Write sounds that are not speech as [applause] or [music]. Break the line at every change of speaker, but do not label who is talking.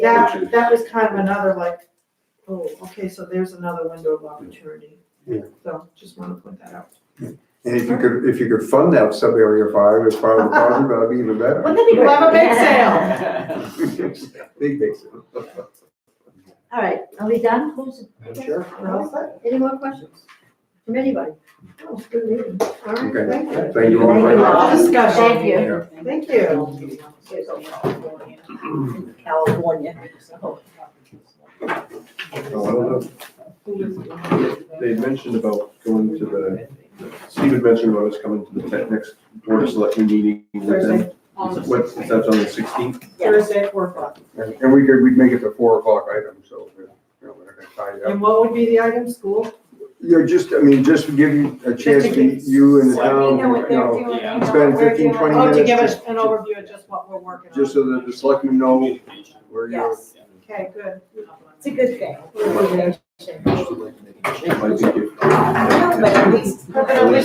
That,
Which is-
that was kind of another like, oh, okay, so there's another window of opportunity.
Yeah.
So just wanna point that out.
And if you could, if you could fund that sub-area five as part of the project, that'd be even better.
Wouldn't it be great to have a big [laughs] sale?
Big, big sale.
All right, are we done? Who's,
Sure.
any more questions from anybody?
Oh, it's good meeting. All right,
Okay.
thank you.
Thank you all
Thank
very
you
much.
all.
Discussion.
Thank you.
Thank you.
California.
Oh, I don't know. They mentioned about going to the, Stephen mentioned about us coming to the tech- next board of selectmen meeting with them.
Thursday,
Is it- What, is that on the sixteenth?
Thursday at four o'clock.
And and we could, we'd make it the four o'clock item, so, you know, we're not gonna tie it up.
And what would be the item, school?
You're just, I mean, just to give you a chance,
give
to you and the town, you know, spend 15, 20
Oh, to
minutes
give us
just-
an overview of just what we're working on.
just so that the selectmen know where you're.
Yes,
Okay, good.
it's a good thing.
Might be good.
No, but at least.
But at least